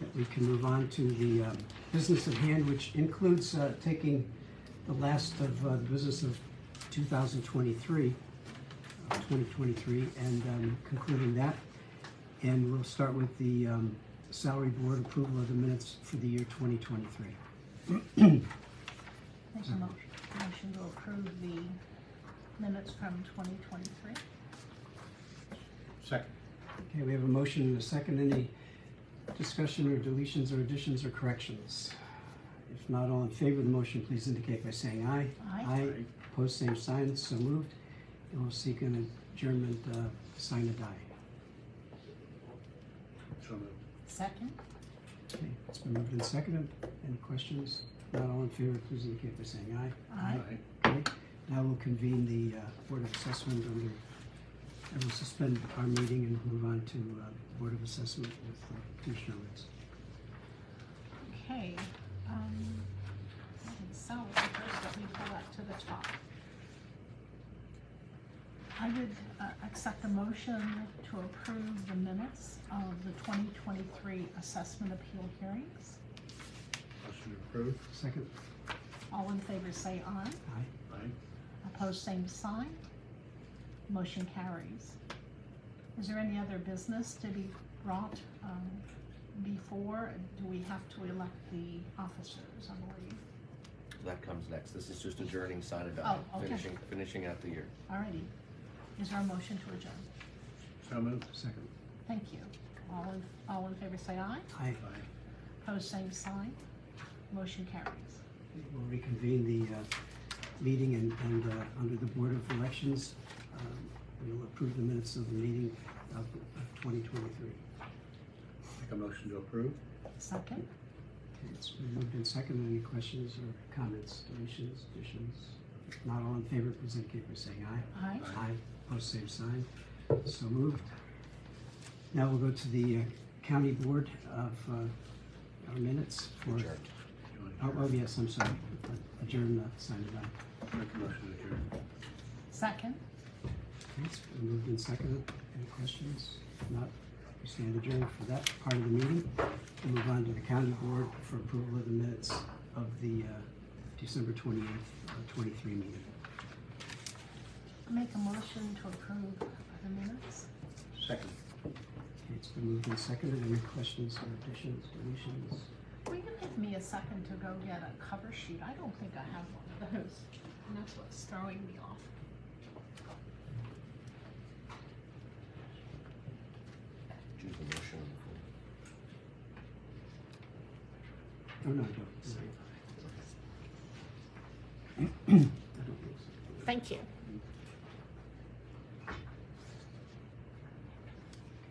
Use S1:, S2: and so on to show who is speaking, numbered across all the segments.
S1: that we can move on to the um, business at hand, which includes uh, taking the last of uh, the business of 2023, uh, 2023, and um, concluding that. And we'll start with the um, salary board approval of the minutes for the year 2023.
S2: Make a mo- motion to approve the minutes from twenty twenty-three.
S3: Second.
S1: Okay, we have a motion and a second. Any discussion or deletions or additions or corrections? If not, all in favor of the motion, please indicate by saying aye.
S2: Aye.
S1: Aye. Opposed, same sign, so moved. And we'll seek an adjournment, uh, sign a die.
S3: So moved.
S2: Second?
S1: Okay, it's been moved and seconded. Any questions? Not all in favor, please indicate by saying aye.
S2: Aye.
S1: Okay, now we'll convene the uh, Board of Assessment under, and we'll suspend our meeting and move on to uh, Board of Assessment with uh, Commissioner Ritz.
S2: Okay, um, and so, first let me pull that to the top. I would uh, accept a motion to approve the minutes of the twenty twenty-three assessment appeal hearings.
S3: Motion approved.
S1: Second?
S2: All in favor say aye.
S1: Aye.
S3: Aye.
S2: Opposed, same sign. Motion carries. Is there any other business to be brought um, before? Do we have to elect the officers, I believe?
S4: That comes next. This is just adjourning, sign it
S2: Oh,
S4: out,
S2: okay.
S4: finishing, finishing out the year.
S2: Alrighty. Is there a motion to adjourn?
S3: So moved.
S1: Second.
S2: Thank you. All in, all in favor say aye.
S1: Aye.
S3: Aye.
S2: Opposed, same sign. Motion carries.
S1: We'll reconvene the uh, meeting and, and uh, under the Board of Elections, um, we'll approve the minutes of the meeting of of 2023.
S3: Make a motion to approve.
S2: Second?
S1: Okay, It's been moved and seconded. Any questions or comments, deletions, additions? If Not all in favor, please indicate by saying aye.
S2: Aye.
S3: Aye.
S1: Aye, post same sign, so moved. Now we'll go to the uh, County Board of uh, our minutes for,
S4: Adjourned.
S3: You want to
S1: oh, oh,
S3: adjourn?
S1: yes, I'm sorry, adjourn, uh, sign it out.
S3: Make a motion to adjourn.
S2: Second?
S1: Thanks, we moved and seconded. Any questions? If Not, we stand adjourned for that part of the meeting. We'll move on to the county board for approval of the minutes of the uh, December twenty-eighth, uh, twenty-three meeting.
S2: Make a motion to approve the minutes.
S3: Second.
S1: Okay, It's been moved and seconded. Any questions or additions, deletions?
S2: Will you give me a second to go get a cover sheet? I don't think I have one of those, and that's what's throwing me off.
S4: Choose the motion.
S1: Oh, no, I don't. Sorry. I don't think so.
S2: Thank you.
S1: Okay,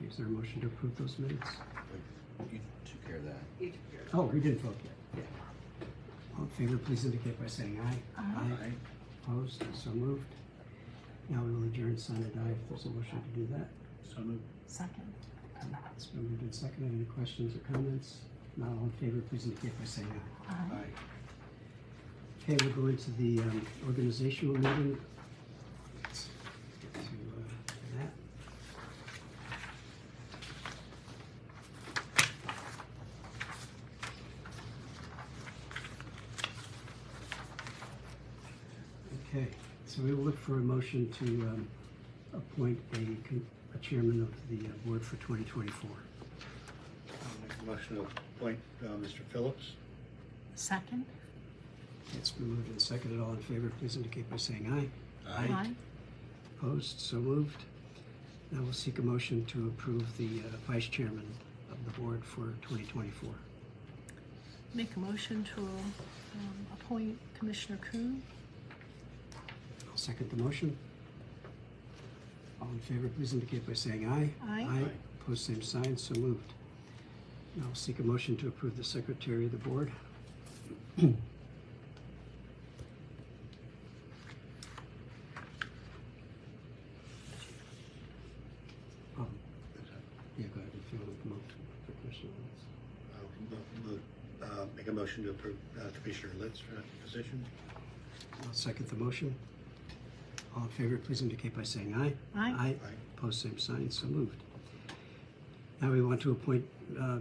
S1: Is there a motion to approve those minutes?
S4: You took care of that.
S1: Oh, we didn't vote yet.
S4: Yeah.
S1: All in favor, please indicate by saying aye.
S2: Aye.
S3: Aye.
S1: Opposed, so moved. Now we will adjourn, sign and die if there's a motion to do that.
S3: So moved.
S2: Second.
S1: It's been moved and seconded. Any questions or comments? Not all in favor, please indicate by saying aye.
S2: Aye.
S3: Aye.
S1: Okay, we'll go into the um, organizational meeting. Let's get to uh, that. Okay, so we will look for a motion to um, appoint a con- a chairman of the uh, board for 2024.
S3: I'll Make a motion to appoint uh, Mr. Phillips.
S2: Second.
S1: It's been moved and seconded. All in favor, please indicate by saying aye. Opposed, so moved. Now we'll seek a motion to approve the uh, vice chairman of the board for 2024.
S2: Make a motion to um, appoint Commissioner Kuhn.
S1: I'll second the motion. All in favor, please indicate by saying aye.
S2: Aye.
S1: Aye.
S3: Aye.
S1: Opposed, same sign, so moved. Now we'll seek a motion to approve the secretary of the board. Um, Um,
S3: Is that-
S1: Yeah, go ahead if you want to move to the question.
S3: I'll mo- mo- uh, Make a motion to approve uh, Commissioner Litz for that position.
S1: I'll second the motion. All in favor, please indicate by saying aye.
S2: Aye.
S1: Aye.
S3: Aye.
S1: Opposed, same sign, so moved. Now we want to appoint uh,